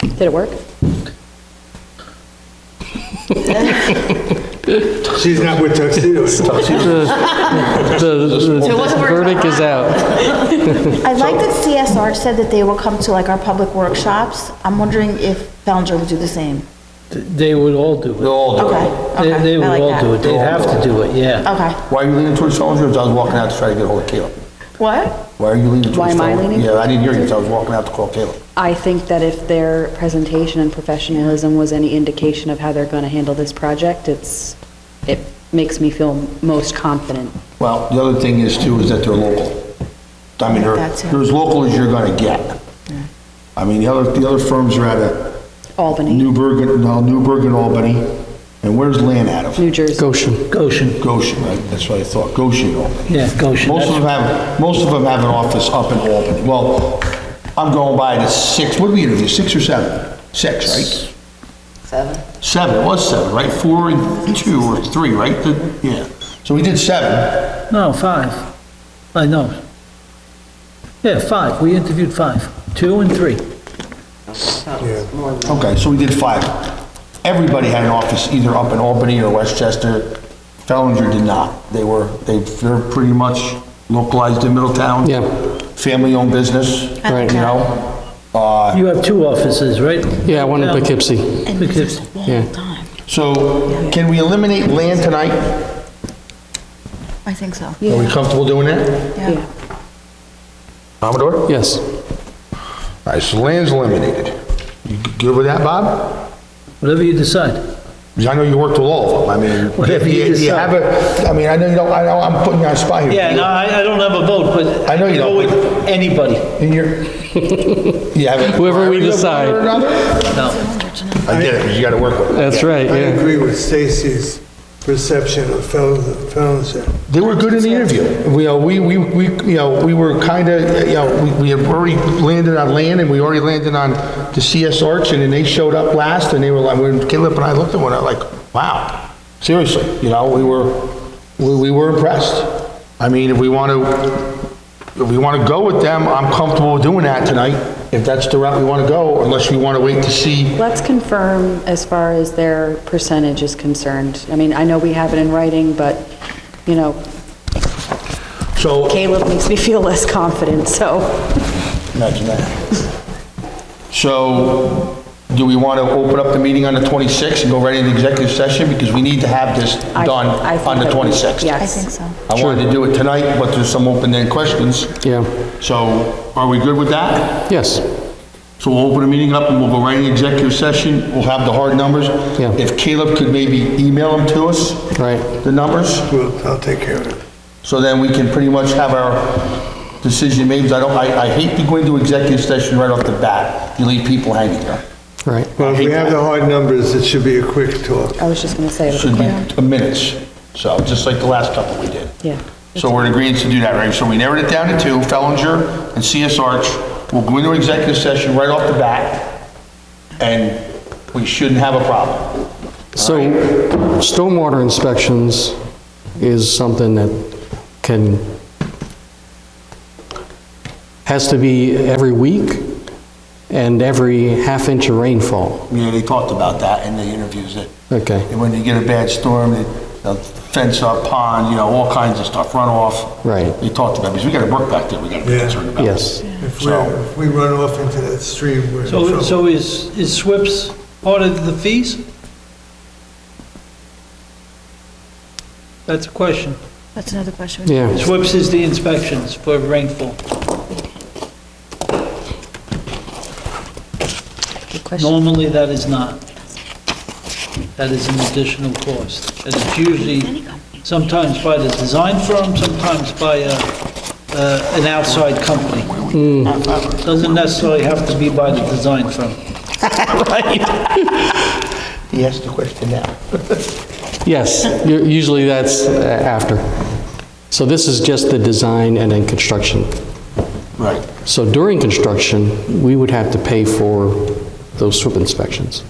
Did it work? She's not with tuxedos. The it wasn't working. verdict is out. I like that CSR said that they will come to like our public workshops. I'm wondering if Bellinger will do the same. They would all do They'll it. all do it. Okay, Oh. They okay. they I would like all do it. that. They'd have to do it, yeah. Okay. Why are you leaning towards Stone Jones? I was walking out to try to get a hold of Caleb. What? Why are you leaning towards Why am I Stone- leaning? Yeah, I didn't hear you, so I was walking out to call Caleb. I think that if their presentation and professionalism was any indication of how they're going to handle this project, it's, it makes me feel most confident. Well, the other thing is too, is that they're local. I mean, they're, That's it. they're as local as you're gonna get. I mean, the other, the other firms are out of Albany, Newburgh, no, Newburgh and Albany, and where's Land out of? New Jersey. Goshen, Goshen, Goshen, right? That's what I thought, Goshen, Albany. yeah, Goshen. Most of That's- them have, most of them have an office up in Albany. Well, I'm going by the six, what did we interview, six or seven? Six, right? Seven. Seven, it was seven, right? Four and two or three, right? The- Yeah. So we did seven. No, five. I know. Yeah, five. We interviewed five. Two and three. Okay, so we did five. Everybody had an office either up in Albany or Westchester. Fellinger did not. They were, they, they're pretty much localized in Middletown. Yeah. Family-owned business, Right. you know? Uh, You have two offices, right? Yeah, one in Yeah. Poughkeepsie. And this is a Yeah. long time. so can we eliminate land tonight? I think so. Are we comfortable doing that? Yeah. Commodore? All Yes. right, so land's eliminated. You good with that, Bob? Whatever you decide. Because I know you worked with all of them, I mean, Whatever if you you, you decide. have a, I mean, I know you don't, I know I'm putting you on the spot here. Yeah, no, I, I don't have a vote, but. I know you I'd go don't. with Anybody, In your, you have a. Whoever we priority of one decide. or another? no. I get it, because you gotta work with it. That's right, I yeah. agree with Stacy's perception of Felonzer. They were good in the interview. We, uh, we, we, we, you know, we were kinda, you know, we, we had already landed on land, and we already landed on the CS Arch, and then they showed up last, and they were like, when Caleb and I looked at one, another like, wow, seriously, you know, we were, we, we were impressed. I mean, if we wanna, if we want to go with them, I'm comfortable doing that tonight, if that's the route we want to go, unless we want to wait to see. Let's confirm as far as their percentage is concerned. I mean, I know we have it in writing, but, you know, So, Caleb makes me feel less confident, so. imagine that. So, do we want to open up the meeting on the 26th and go right into executive session? Because we need to have this I- done I think on the that we- 26th. I Yes. think so. I wanted to do it tonight, but there's some open-ended questions. Yeah. So, are we good with that? Yes. So we'll open the meeting up and we'll go right into executive session. We'll have the hard numbers. Yeah. If Caleb could maybe email them to us. Right. The numbers, Well, I'll take care of it. so then we can pretty much have our decision made. 'cause I don't, I, I hate to go into executive session right off the bat. You leave people hanging there. Right. Well, if we have the hard numbers, it should be a quick talk. I was just going to say, Should be minutes. So, just like the last couple we did. yeah. So we're in agreement to do that, right? So we narrowed it down to two, Fellinger and CS Arch. We'll go into executive session right off the bat, and we shouldn't have a problem. So stormwater inspections is something that can, has to be every week and every half inch of rainfall. Yeah, they talked about that in the interviews, that Okay. that when you get a bad storm, they- they'll fence up pond, you know, all kinds of stuff, runoff. Right. They talked about, it, because we got to work back there, we got to be Yeah. concerned about. Yes. If we're- if we run off into that stream, we're in So, trouble. so is, is SWIP's part of the fees? That's a question. That's another question. Yeah. SWIP's is the inspections for rainfall. Good question. Normally, that is not. That is an additional cost. And it's usually, sometimes by the design firm, sometimes by a, uh, an outside company. Hmm. Doesn't necessarily have to be by the design firm. He asked the question now. Yes, u- usually that's uh, after. So this is just the design and then construction. Right. So during construction, we would have to pay for those SWIP inspections.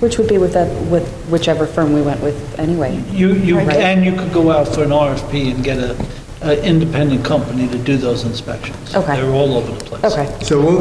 Which would be with that, with whichever firm we went with anyway. You, you, Right. and you could go out for an RFP and get a, an independent company to do those inspections. Okay. They're all over the place. Okay. So we'll